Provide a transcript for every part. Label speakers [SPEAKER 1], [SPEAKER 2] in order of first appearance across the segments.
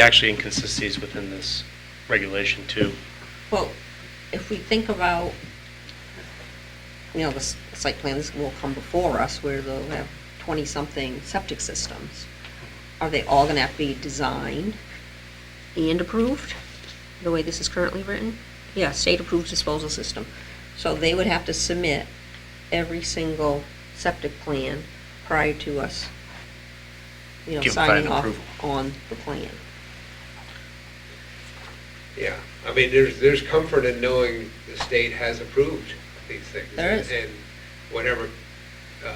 [SPEAKER 1] actually inconsistencies within this regulation too.
[SPEAKER 2] Well, if we think about, you know, the s- site plans will come before us where they'll have 20-something septic systems. Are they all going to have to be designed and approved, the way this is currently written? Yeah, state-approved disposal system. So they would have to submit every single septic plan prior to us, you know,
[SPEAKER 3] Give
[SPEAKER 2] signing
[SPEAKER 3] final
[SPEAKER 2] off
[SPEAKER 3] approval.
[SPEAKER 2] on the plan.
[SPEAKER 4] Yeah, I mean, there's, there's comfort in knowing the state has approved these things.
[SPEAKER 2] There is.
[SPEAKER 4] And whatever uh,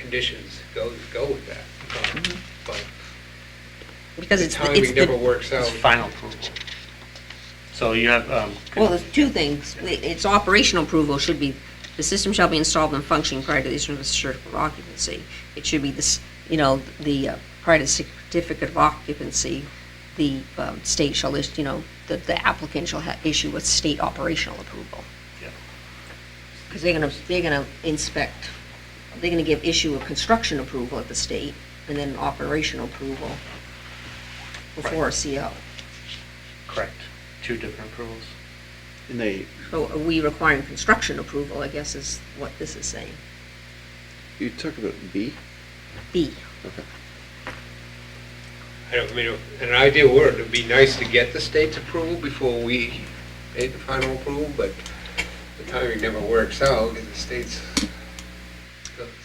[SPEAKER 4] conditions go, go with that. Um, But
[SPEAKER 2] Because Mm-hmm. it's,
[SPEAKER 4] the
[SPEAKER 2] the- it's
[SPEAKER 4] timing never
[SPEAKER 2] the
[SPEAKER 4] works out.
[SPEAKER 3] It's final approval.
[SPEAKER 1] So you have, um,
[SPEAKER 2] Well, there's two things. Its operational approval should be, the system shall be installed and functioning prior to the issuance of a certificate of occupancy. It should be this, you know, the, uh, prior to certificate of occupancy, the um, state shall, list. you know, the the applicant shall ha- issue a state operational approval.
[SPEAKER 1] Yeah.
[SPEAKER 2] Because they're gonna, they're gonna inspect, they're gonna give issue a construction approval at the state, and then an operational approval before a CO.
[SPEAKER 1] correct, two different approvals.
[SPEAKER 3] Mm-hmm. And they,
[SPEAKER 2] So are we requiring construction approval, I guess is what this is saying.
[SPEAKER 3] you talk about B?
[SPEAKER 2] B.
[SPEAKER 3] Okay.
[SPEAKER 4] I don't, I mean, in an ideal world, it'd be nice to get the state's approval before we made the final approval, but the timing never works out because the state's.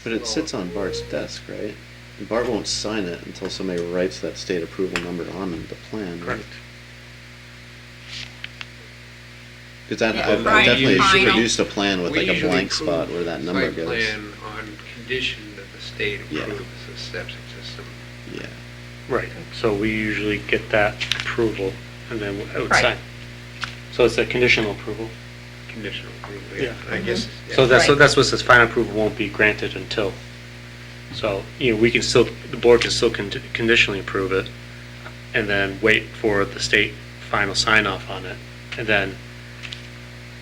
[SPEAKER 3] But it sits on Bart's desk, right? And Bart won't sign it until somebody writes that state approval number on the plan, right?
[SPEAKER 1] Correct.
[SPEAKER 3] Because I,
[SPEAKER 2] Yeah,
[SPEAKER 3] I've
[SPEAKER 4] right,
[SPEAKER 3] I've definitely
[SPEAKER 4] final.
[SPEAKER 3] produced a plan with
[SPEAKER 4] We
[SPEAKER 3] like a
[SPEAKER 4] usually
[SPEAKER 3] blank spot
[SPEAKER 4] approve
[SPEAKER 3] where that number
[SPEAKER 4] site
[SPEAKER 3] goes.
[SPEAKER 4] plan on condition that the state
[SPEAKER 3] Yeah.
[SPEAKER 4] approves the septic system.
[SPEAKER 3] Yeah,
[SPEAKER 1] Right, so we usually get that approval and then it would
[SPEAKER 2] Right.
[SPEAKER 1] sign. So it's a conditional approval.
[SPEAKER 4] Conditional approval,
[SPEAKER 1] Yeah. Mm-hmm.
[SPEAKER 4] yeah, I guess. yeah.
[SPEAKER 1] So that's, so
[SPEAKER 2] Right.
[SPEAKER 1] that's what says final approval won't be granted until. So, you know, we can still, the board can still con- conditionally approve it and then wait for the state final sign off on it. And then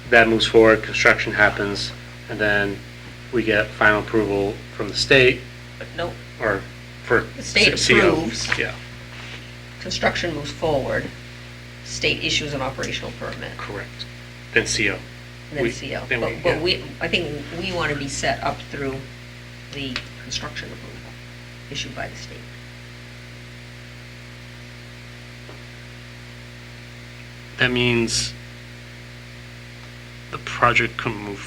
[SPEAKER 1] that moves forward, construction happens, and then we get final approval from the state
[SPEAKER 2] No,
[SPEAKER 1] or for.
[SPEAKER 2] The state
[SPEAKER 1] CO.
[SPEAKER 2] approves.
[SPEAKER 1] Yeah,
[SPEAKER 2] construction moves forward, state issues an operational permit,
[SPEAKER 1] correct. Then CO.
[SPEAKER 2] and then
[SPEAKER 1] We-
[SPEAKER 2] CO.
[SPEAKER 1] then we-
[SPEAKER 2] But- But
[SPEAKER 1] yeah.
[SPEAKER 2] we, I think we want to be set up through the construction approval issued by the state.
[SPEAKER 1] That means the project can move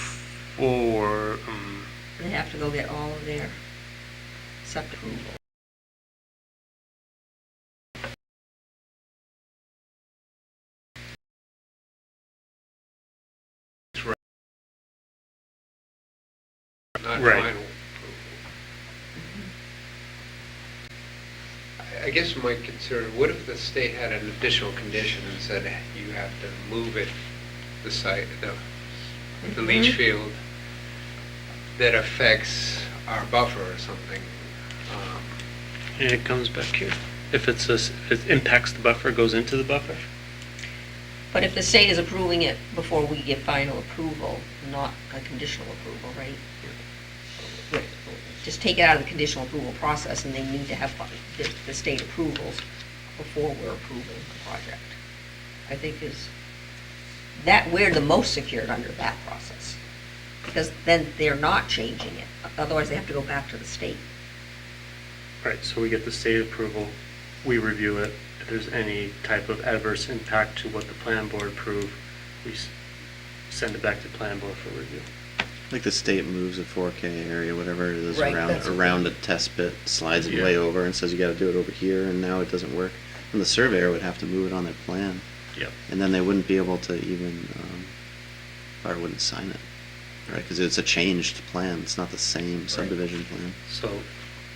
[SPEAKER 1] forward, um,
[SPEAKER 2] They have to go get all of their septic approval.
[SPEAKER 4] Not
[SPEAKER 1] Right.
[SPEAKER 4] final. I- I guess my concern, what if the state had an additional condition and said you have to move it, the site, the, the leach field, that affects our buffer or something? Um,
[SPEAKER 1] and it comes back here. If it's a, s- if it impacts the buffer, goes into the buffer?
[SPEAKER 2] But if the state is approving it before we give final approval, not a conditional approval, right? But Just take it out of the conditional approval process, and they need to have fi- the, the state approvals before we're approving the project. I think is, that, we're the most secured under that process, because then they're not changing it, otherwise they have to go back to the state.
[SPEAKER 1] Right, so we get the state approval, we review it. If there's any type of adverse impact to what the plan board approved, we s- send it back to plan board for review.
[SPEAKER 3] like the state moves a four K area, whatever it is
[SPEAKER 2] Right,
[SPEAKER 3] around,
[SPEAKER 2] that's-
[SPEAKER 3] around a test pit, slides it
[SPEAKER 1] Yeah.
[SPEAKER 3] way over and says you gotta do it over here and now it doesn't work. And the surveyor would have to move it on their plan.
[SPEAKER 1] Yep.
[SPEAKER 3] And then they wouldn't be able to even, um, Bart wouldn't sign it, right? Because it's a changed plan, it's not the same subdivision plan,
[SPEAKER 1] So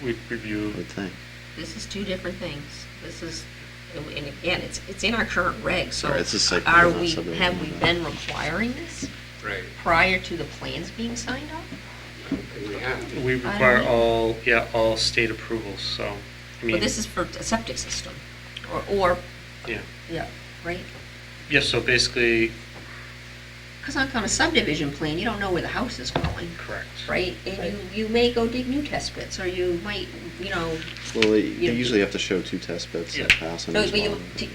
[SPEAKER 1] we
[SPEAKER 3] I
[SPEAKER 1] review,
[SPEAKER 3] would think.
[SPEAKER 2] This is two different things. This is, and again, it's, it's in our current reg, so
[SPEAKER 3] Right, it's a site plan,
[SPEAKER 2] are
[SPEAKER 3] not
[SPEAKER 2] we,
[SPEAKER 3] subdivision,
[SPEAKER 2] have we
[SPEAKER 3] right.
[SPEAKER 2] been requiring this
[SPEAKER 4] Right,
[SPEAKER 2] prior to the plans being signed off?
[SPEAKER 4] I don't think we have.
[SPEAKER 1] we require all, yeah, all state approvals, so, I mean,
[SPEAKER 2] But this is for a septic system, or, or,
[SPEAKER 1] yeah.
[SPEAKER 2] yeah, right?
[SPEAKER 1] Yeah, so basically,
[SPEAKER 2] Because on a subdivision plan, you don't know where the house is going,
[SPEAKER 4] Correct.
[SPEAKER 2] right? And you, you may go dig new test pits, or you might, you know,
[SPEAKER 3] Well, they,
[SPEAKER 2] Yeah.
[SPEAKER 3] they usually have to show two test bits that
[SPEAKER 1] Yeah.
[SPEAKER 3] pass on
[SPEAKER 2] no,
[SPEAKER 3] each
[SPEAKER 2] but you,
[SPEAKER 3] one.